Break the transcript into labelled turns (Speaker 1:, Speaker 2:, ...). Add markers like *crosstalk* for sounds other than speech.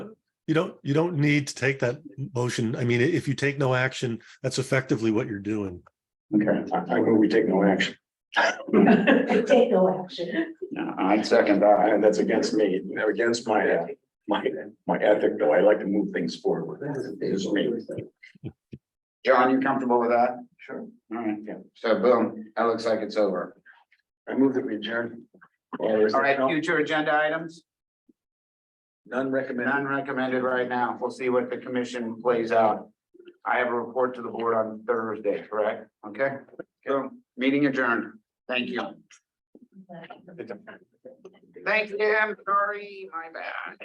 Speaker 1: you don't, you don't need to take that motion. I mean, i- if you take no action, that's effectively what you're doing.
Speaker 2: Okay, I, I move we take no action.
Speaker 3: *laughs* Take no action.
Speaker 2: No, I second that. I- That's against me, against my, uh, my, my ethic, though. I like to move things forward. It's me.
Speaker 4: John, you comfortable with that?
Speaker 2: Sure.
Speaker 4: All right,
Speaker 2: Yeah.
Speaker 4: so boom, that looks like it's over.
Speaker 2: I move that we adjourn. Or is
Speaker 4: All
Speaker 2: there
Speaker 4: right,
Speaker 2: no-
Speaker 4: future agenda items,
Speaker 2: None recommended.
Speaker 4: none recommended right now. We'll see what the commission plays out. I have a report to the board on Thursday, correct? Okay, so meeting adjourned. Thank you. Thanks, Jim. Sorry, my bad.